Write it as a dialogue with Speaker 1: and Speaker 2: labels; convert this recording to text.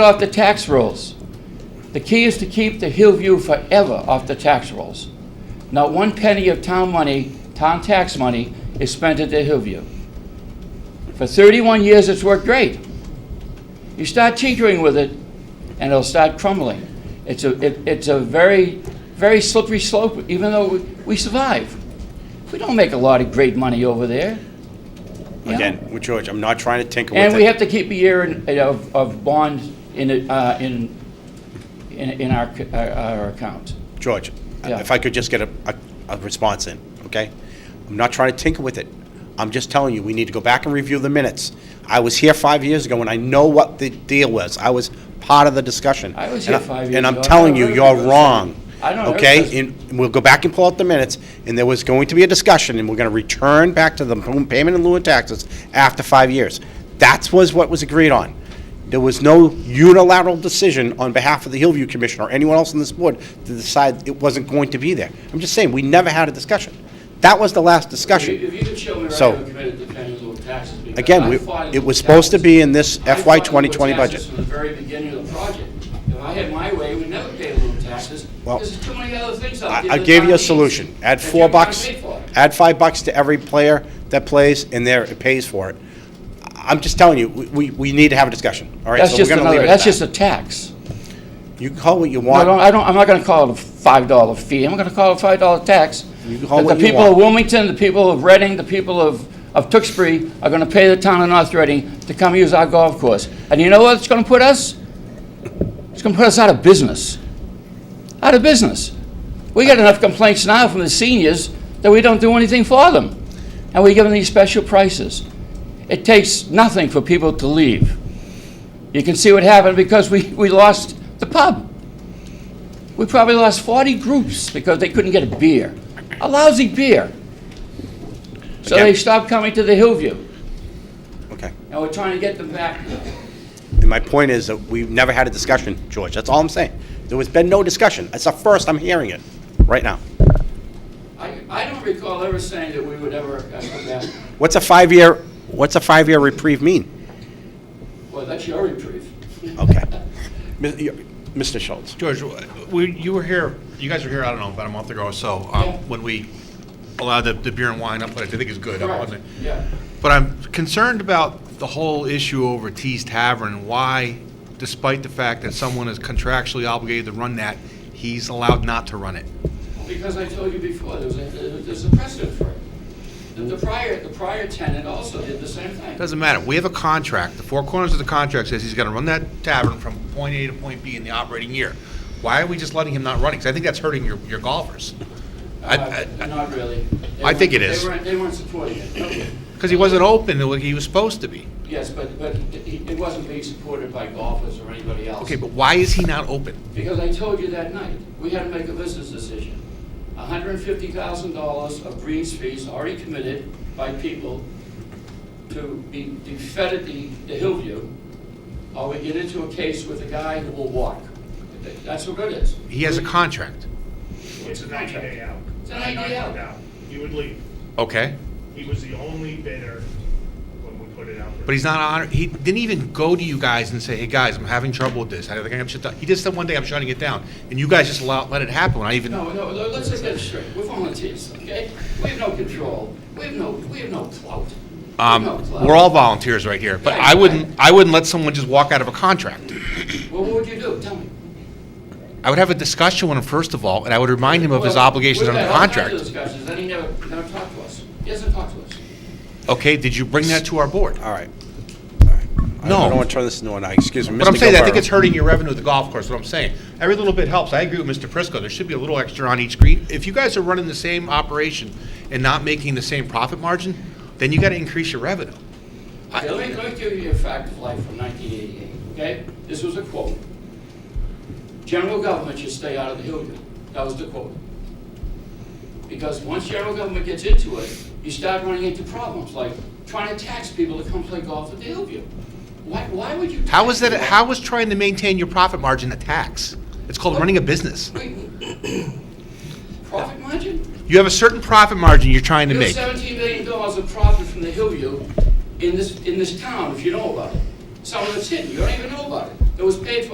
Speaker 1: off the tax rolls. The key is to keep the Hillview forever off the tax rolls. Not one penny of town money, town tax money, is spent at the Hillview. For 31 years, it's worked great. You start tinkering with it, and it'll start crumbling. It's a, it- it's a very, very slippery slope, even though we- we survive. We don't make a lot of great money over there. you know?
Speaker 2: Again, with George, I'm not trying to tinker with it.
Speaker 1: And we have to keep a year in- of, of bond in, it, uh, in, in in our, c- our- our account.
Speaker 2: George,
Speaker 1: Yeah.
Speaker 2: if I could just get a, a, a response in, okay? I'm not trying to tinker with it. I'm just telling you, we need to go back and review the minutes. I was here five years ago, and I know what the deal was. I was part of the discussion.
Speaker 1: I was
Speaker 2: And
Speaker 1: here five years
Speaker 2: And I'm
Speaker 1: ago. I
Speaker 2: telling you,
Speaker 1: don't
Speaker 2: you're
Speaker 1: remember this.
Speaker 2: wrong.
Speaker 1: I don't remember this.
Speaker 2: Okay? And we'll go back and pull out the minutes, and there was going to be a discussion, and we're gonna return back to the payment in lieu of taxes after five years. That was what was agreed on. There was no unilateral decision on behalf of the Hillview Commission or anyone else on this board to decide it wasn't going to be there. I'm just saying, we never had a discussion. That was the last discussion.
Speaker 1: you could show me
Speaker 2: So- who
Speaker 1: committed the penny little taxes.
Speaker 2: Again, we- it was supposed to be in this FY 2020 budget.
Speaker 1: from the very beginning of the project. If I had my way, we'd never pay little taxes,
Speaker 2: Well,
Speaker 1: because there's too many other things out
Speaker 2: I,
Speaker 1: there.
Speaker 2: I
Speaker 1: that
Speaker 2: gave
Speaker 1: town
Speaker 2: you a
Speaker 1: needs,
Speaker 2: solution. Add
Speaker 1: that
Speaker 2: four
Speaker 1: you're not
Speaker 2: bucks,
Speaker 1: paid for.
Speaker 2: add five bucks to every player that plays, and there, it pays for it. I'm just telling you, we, we- we need to have a discussion, all right?
Speaker 1: That's
Speaker 2: So we're
Speaker 1: just
Speaker 2: gonna leave
Speaker 1: another,
Speaker 2: it
Speaker 1: that's
Speaker 2: at that.
Speaker 1: just a tax.
Speaker 2: You can call what you
Speaker 1: I
Speaker 2: want.
Speaker 1: don't, I don't, I'm not gonna call it a five dollar fee, I'm gonna call it a five dollar tax.
Speaker 2: You can call
Speaker 1: That
Speaker 2: what
Speaker 1: The
Speaker 2: you
Speaker 1: people of
Speaker 2: want.
Speaker 1: Wilmington, the people of Reading, the people of, of Tewksbury are gonna pay the town of North Reading to come use our golf course. And you know what it's gonna put us? It's gonna put us out of business. Out of business. We got enough complaints now from the seniors that we don't do anything for them. And we give them these special prices. It takes nothing for people to leave. You can see what happened because we, we lost the pub. We probably lost 40 groups because they couldn't get a beer, a lousy beer. So
Speaker 2: Again-
Speaker 1: they stopped coming to the Hillview,
Speaker 2: Okay.
Speaker 1: and we're trying to get them back.
Speaker 2: And my point is that we've never had a discussion, George. That's all I'm saying. There has been no discussion. It's the first I'm hearing it, right now.
Speaker 1: I, I don't recall ever saying that we would ever uh, come back.
Speaker 2: What's a five-year, what's a five-year reprieve mean?
Speaker 1: Well, that's your reprieve.
Speaker 2: Okay. Mis- you- Mr. Schultz,
Speaker 3: George, we, you were here, you guys were here, I don't know, about a month ago or so,
Speaker 1: Yeah.
Speaker 3: um, when we allowed the, the beer and wine up, which I think is good. up on
Speaker 1: Right,
Speaker 3: the-
Speaker 1: yeah.
Speaker 3: But I'm concerned about the whole issue over Tees Tavern, and why, despite the fact that someone is contractually obligated to run that, he's allowed not to run it.
Speaker 1: Because I told you before, there was a, there's a precedent for it. The- The prior, the prior tenant also did the same thing.
Speaker 3: Doesn't matter, we have a contract, the four corners of the contract says he's gonna run that tavern from point A to point B in the operating year. Why are we just letting him not run it? Because I think that's hurting your, your golfers. I-
Speaker 1: Uh,
Speaker 3: I-
Speaker 1: Not really. They
Speaker 3: I
Speaker 1: weren't-
Speaker 3: think it is.
Speaker 1: They weren't, they weren't supporting it. Okay.
Speaker 3: Because he wasn't open the way he was supposed to be.
Speaker 1: Yes, but, but it it wasn't being supported by golfers or anybody else.
Speaker 3: Okay, but why is he not open?
Speaker 1: Because I told you that night, we had to make a business decision. hundred and fifty thousand dollars of greens fees already committed by people to be, to fed at the, the Hillview, or we get into a case with a guy who will walk. That's what it is.
Speaker 3: He has a contract.
Speaker 4: It's a ninety day out.
Speaker 1: It's a 90 day out.
Speaker 4: He would leave.
Speaker 3: Okay.
Speaker 4: He was the only bidder when we put it out. there.
Speaker 3: But he's not on, he didn't even go to you guys and say, hey, guys, I'm having trouble with this. I think I'm shut down. He just said one day, I'm shutting it down. And you guys just allow, let it happen when I even,
Speaker 1: No, no, no, let's just get it straight. We're volunteers, okay? We have no control. We have no, we have no clout. We have
Speaker 3: um,
Speaker 1: no clout.
Speaker 3: we're all volunteers right here. But
Speaker 1: Yeah,
Speaker 3: I wouldn't, I wouldn't let someone just walk out of a contract.
Speaker 1: Well, what would you do? Tell me.
Speaker 3: I would have a discussion with him first of all, and I would remind him of his
Speaker 1: Well,
Speaker 3: obligations under the
Speaker 1: We've had all kinds
Speaker 3: contract.
Speaker 1: of discussions, and he never, never talked to us. He hasn't talked to us.
Speaker 3: Okay, did you bring that to our board?
Speaker 2: all right. All right. I- I
Speaker 3: No.
Speaker 2: don't want to turn this into an, uh, excuse me, Mr.
Speaker 3: But I'm saying, I think
Speaker 2: Gilberto.
Speaker 3: it's hurting your revenue at the golf course, what I'm saying. Every little bit helps. I agree with Mr. Prisco, there should be a little extra on each green. If you guys are running the same operation and not making the same profit margin, then you gotta increase your revenue. I-
Speaker 1: Okay, let me, let me give you a fact of life from 1988, okay? This was a quote. General government should stay out of the Hilliard. That was the quote. Because once general government gets into it, you start running into problems, like trying to tax people to come play golf at the Hillview. Why, why would you?
Speaker 3: How
Speaker 1: tax
Speaker 3: is that,
Speaker 1: people?
Speaker 3: how is trying to maintain your profit margin a tax? It's called running a business.
Speaker 1: Profit margin?
Speaker 3: You have a certain profit margin you're trying to
Speaker 1: You have
Speaker 3: make.
Speaker 1: seventeen million dollars of profit from the Hillview in this, in this town, if you know about it. Some of it's hidden, you don't even know about it. It was paid for